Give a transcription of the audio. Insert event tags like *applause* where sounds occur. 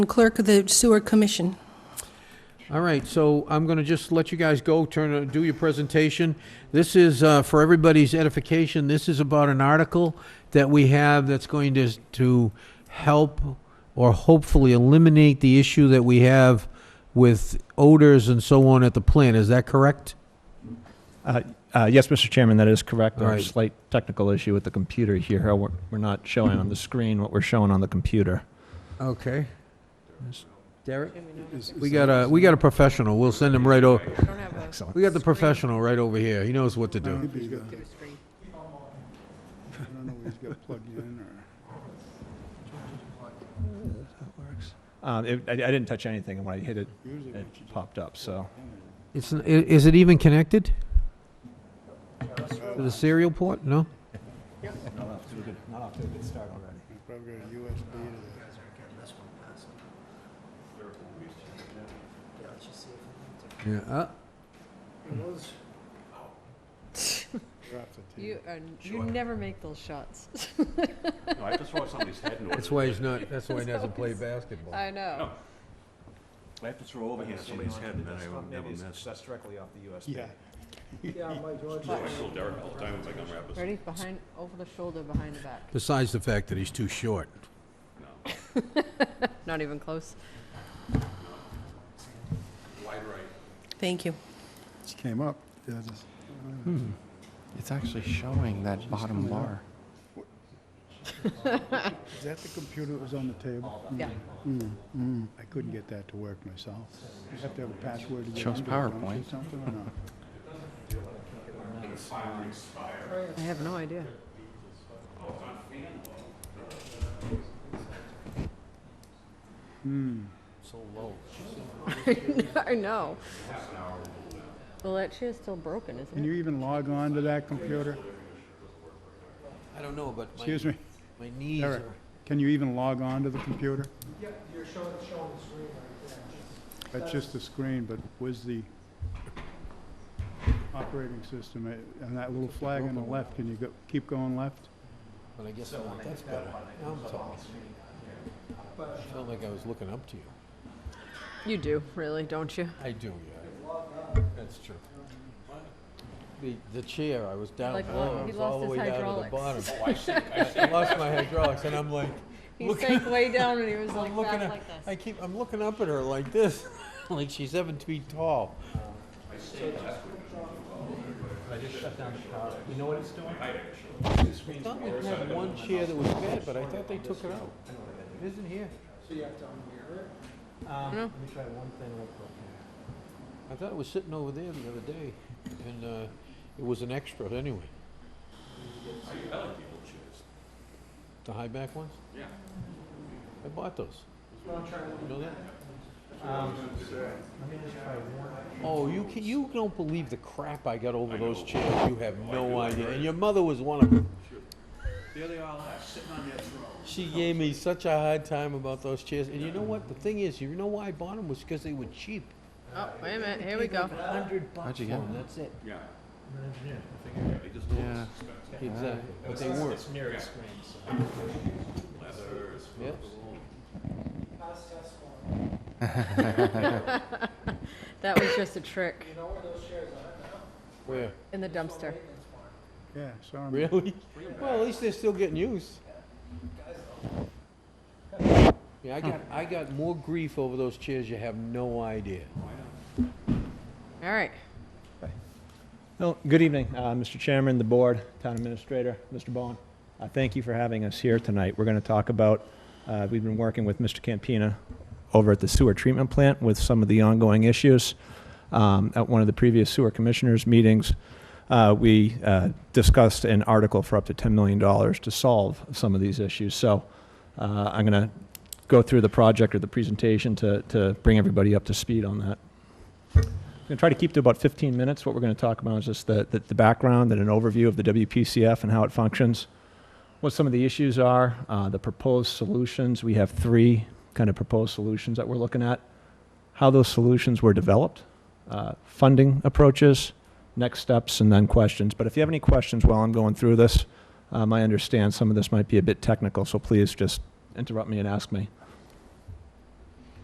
Clerk of the Sewer Commission. All right, so I'm going to just let you guys go, turn, uh, do your presentation. This is, uh, for everybody's edification, this is about an article that we have that's going to, to help or hopefully eliminate the issue that we have with odors and so on at the plant. Is that correct? Uh, uh, Yes, Mr. Chairman, that is correct. All right. There's a slight technical issue with the computer here. We're we're not showing on the screen what we're showing on the computer. Okay. Derek? Is- We uh, is got that- a, we got a professional. We'll send him right over. Excellent. We got the professional right over here. He knows what to do. Maybe he's got- I don't know, he's got plugged in or. Uh, it- I I didn't touch anything, and when I hit it, usually it popped up, so. It's, n- i- is it even connected? To the serial port? No? Not off to a good, not off to a good start already. He's probably got a USB to Yeah. uh, drop the You, tape. are, you never make those shots. No, I just saw somebody's head in order. That's why he's not, that's why he doesn't play basketball. I know. I have to throw overhand at somebody's head, and then I will never miss. That's directly off the USB. Yeah. I still Derek all the time with my gum wrappers. Ready? Behind, over the shoulder, behind the back. Besides the fact that he's too short. No, Not even close. wide right. Thank you. Just came up. Yeah, just- It's actually showing that bottom bar. Is that the computer that was on the table? Yeah. Mm, I couldn't get that to work myself. You have to have a password to get Shows into it, don't you, PowerPoint. Something or not? I have no idea. Hmm. So low. *laughs* I know. Well, that chair's still broken, Can isn't you it? even log on to that computer? I don't know, but Excuse me, my knees Eric, can you even log on to the computer? That's just the screen, but was the operating system, eh, and that little flag on the left, can you go, keep going left? but I guess I want, that's better. Now I'm tall. I felt like I was looking up to you. You do, really, don't you? I do, yeah. That's true. The, the chair, I was down Like, below, I he was all the lost way his down to the bottom. hydraulics. *laughs* I lost my hydraulics, and I'm like, He Look- sank *laughs* way down and he was like I'm looking back at, like this. I keep, I'm looking up at her like this, *laughs* like she's seven feet tall. I just shut down the You know what it's doing? I thought we had one chair that was bad, but I thought they took it out. It isn't here. Um, I thought it was sitting over there the other day, and, uh, it was an extra anyway. The high back ones? Yeah. I bought those. You know that? Oh, you can, you don't believe the crap I got over those chairs. You have Oh, no idea. And your mother was one of them. There they all are, sitting on their throne. She gave me such a hard time about those chairs. And you know what? The thing is, you know why I bought them was because they were cheap. Oh, wait a minute, here we go. Hundred bucks How'd for you get them. them? That's it. Yeah. I'm an engineer. They just do Yeah. Exactly. But they were. leathers. Yes. That was just a trick Where? in the dumpster. Yeah, sorry. man. Really? Well, at least they're still getting used. Yeah, I got, I got more grief over those chairs. You have no idea. All right. Well, good evening, uh, Mr. Chairman, the board, town administrator, Mr. Bowen. Uh, Thank you for having us here tonight. We're going to talk about, uh, we've been working with Mr. Campina over at the sewer treatment plant with some of the ongoing issues. Um, At one of the previous sewer commissioners' meetings, uh, we uh, discussed an article for up to $10 million to solve some of these issues. So uh, I'm going to go through the project or the presentation to to bring everybody up to speed on that. I'm going to try to keep to about 15 minutes. What we're going to talk about is just the, the, the background and an overview of the WPCF and how it functions, what some of the issues are, uh, the proposed solutions. We have three kind of proposed solutions that we're looking at, how those solutions were developed, uh, funding approaches, next steps, and then questions. But if you have any questions while I'm going through this, um, I understand some of this might be a bit technical, so please just interrupt me and ask me.